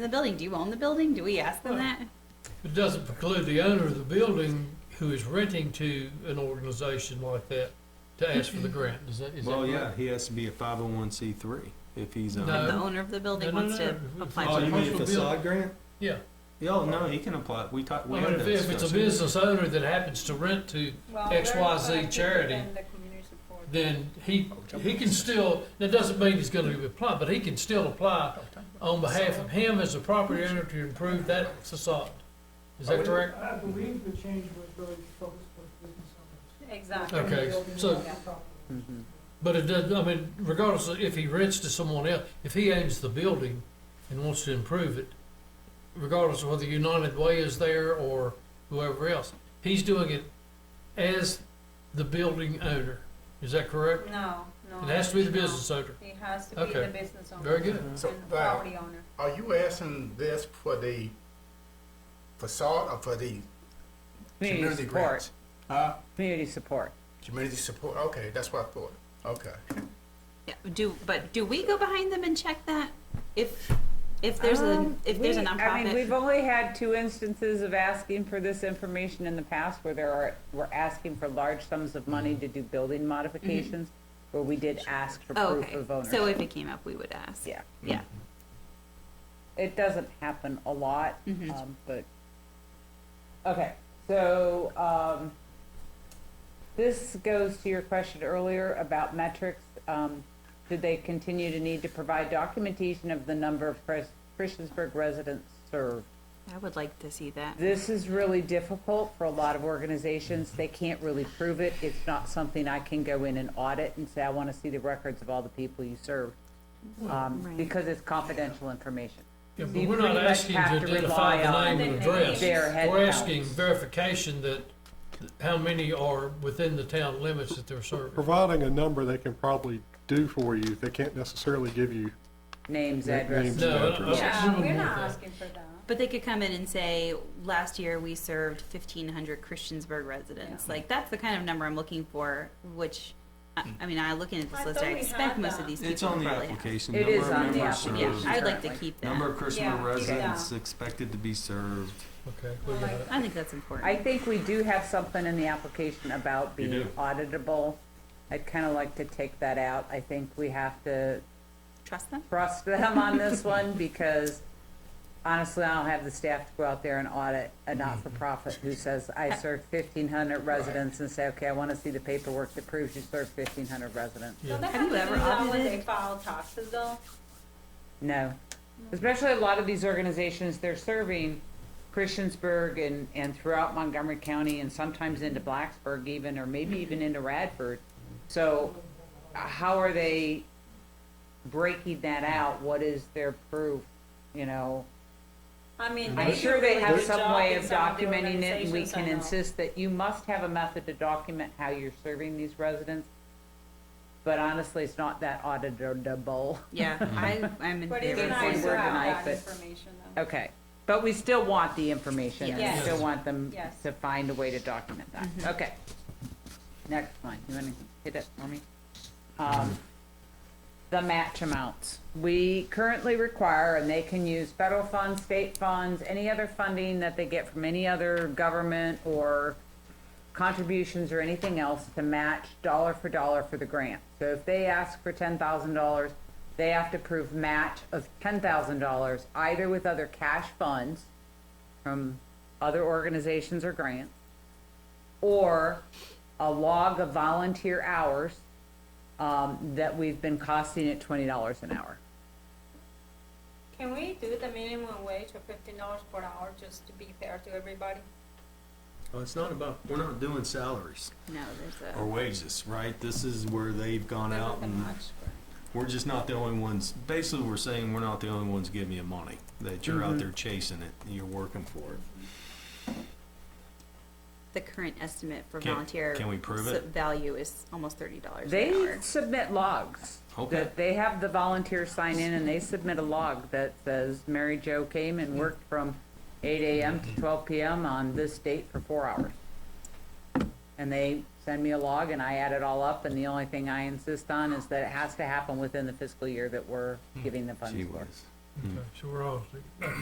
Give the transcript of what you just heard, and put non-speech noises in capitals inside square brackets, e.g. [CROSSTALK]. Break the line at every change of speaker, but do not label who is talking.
the building. Do you own the building? Do we ask them that?
It doesn't preclude the owner of the building who is renting to an organization like that to ask for the grant, is that, is that
Well, yeah,
correct?
he has to be a five oh one C three if he's uh, on.
If the
No.
owner of the building
No, no,
wants
no.
to
If-
apply
Oh,
for
you
it.
mean a facade grant?
Yeah,
Yeah, oh, no, he can apply, we talked,
I
we
mean,
had
Oh, if,
that
if it's a
discussion.
business owner that happens to rent to
Well,
X,
they're
Y, Z
gonna keep it
charity,
in the community support.
then he, he can still, that doesn't mean he's gonna apply, but he can still apply on behalf of him as a property owner to improve that facade. Is
Oh,
that correct?
I believe the change was really focused on business owners.
Exactly.
Okay, so- But it does, I mean, regardless of if he rents to someone else, if he owns the building and wants to improve it, regardless of whether United Way is there or whoever else, he's doing it as the building owner. Is that correct?
No, no.
It has to be the
no.
business owner.
It has to be
Okay.
the business owner.
Very good.
So,
And
Val,
property owner.
are you asking this for the facade or for the community grants? Huh?
Community support.
Community support, okay, that's what I thought, okay.
Yeah, Do, but do we go behind them and check that? If, if there's a,
Um,
if there's a
we- I mean, we've
nonprofit?
only had two instances of asking for this information in the past where there are, we're asking for large sums of money
Mm-hmm.
to do building modifications, where we did ask for
Oh,
proof
Okay,
of
so
ownership.
if it came up, we would ask.
Yeah.
Yeah.
It doesn't happen a lot, um, but, okay, so, um, this goes to your question earlier about metrics. Um, do they continue to need to provide documentation of the number of Chris- Christiansburg residents served?
I would like to see that.
This is really difficult for a lot of organizations. They can't really prove it. It's not something I can go in and audit and say, I want to see the records of all the people you serve. Um,
Right.
because it's confidential information.
Yeah,
So
but
you
we're not
pretty much
asking to
have to
identify
rely
the
on
name and
their
address.
their head
We're asking
counts.
verification that, how many are within the town limits that they're serving.
Providing a number they can probably do for you, they can't necessarily give you,
Names,
Their
addresses.
names.
No, I don't- I don't
Yeah,
want
we're not
that.
asking for that.
But they could come in and say, last year we served fifteen hundred Christiansburg residents. Like, that's the kind of number I'm looking for, which, I, I mean, I looking at this
I
list, I
thought we
expect
had
most of
that.
these
Hmm. It's
people
on
probably
the
have.
application.
It
number
is
of
on the
members
application.
Yeah,
served,
I'd like to
Currently.
keep
Number
that.
of Christmas
Yeah.
residents
Yeah.
expected to be served.
Okay, we got it.
I think that's important.
I think we do have something in the application about
You
being
do.
auditable. I'd kind of like to take that out. I think we have to
Trust them?
trust them on this one because honestly, I don't have the staff to go out there and audit a not-for-profit who says, I served fifteen hundred residents and say, okay, I want to see the paperwork that proves you served fifteen hundred residents.
Yeah.
So they
Have you
to
ever
do that when
audited?
They file taxes though.
No. Especially a lot of these organizations, they're serving Christiansburg and, and throughout Montgomery County and sometimes into Blacksburg even, or maybe even into Radford. So uh, how are they breaking that out? What is their proof, you know?
I mean.
I'm
they
sure
do a
they
really
have
good
some
job
way
in
of
some the
documenting it, and we
organizations I
can
know.
insist that you must have a method to document how you're serving these residents. But honestly, it's not that auditable.
[LAUGHS]
Yeah,
Hmm.
I, I'm in
But
favor
it's
of
They say
nice
saying-
to
we're
have
denied,
that
but-
information though.
Okay, but we still want the information, and
Yes.
we still want them
Yes.
to find a way to document that, okay. Next one, you wanna hit it for me? Um, the match amounts, we currently require, and they can use federal funds, state funds, any other funding that they get from any other government or contributions or anything else to match dollar for dollar for the grant. So if they ask for ten thousand dollars, they have to prove match of ten thousand dollars, either with other cash funds from other organizations or grants, or a log of volunteer hours um, that we've been costing at twenty dollars an hour.
Can we do the minimum wage of fifteen dollars per hour just to be fair to everybody?
Well, it's not about, we're not doing salaries
No, there's
or
a,
wages, right? This is where they've gone
There's
out
nothing
and
much for-
we're just not the only ones. Basically, we're saying we're not the only ones giving you money, that you're
Mm-hmm.
out there chasing it and you're working for it.
the current estimate for
Can-
volunteer.
can we prove
s-
it?
Value is almost thirty dollars an
They
hour.
submit logs.
Okay.
That they have the volunteers sign in and they submit a log that says Mary Jo came and worked from eight AM to twelve PM on this date for four hours. And they send me a log and I add it all up and the only thing I insist on is that it has to happen within the fiscal year that we're giving the funds
Hmm. Gee
for.
whiz.
Okay, so we're all,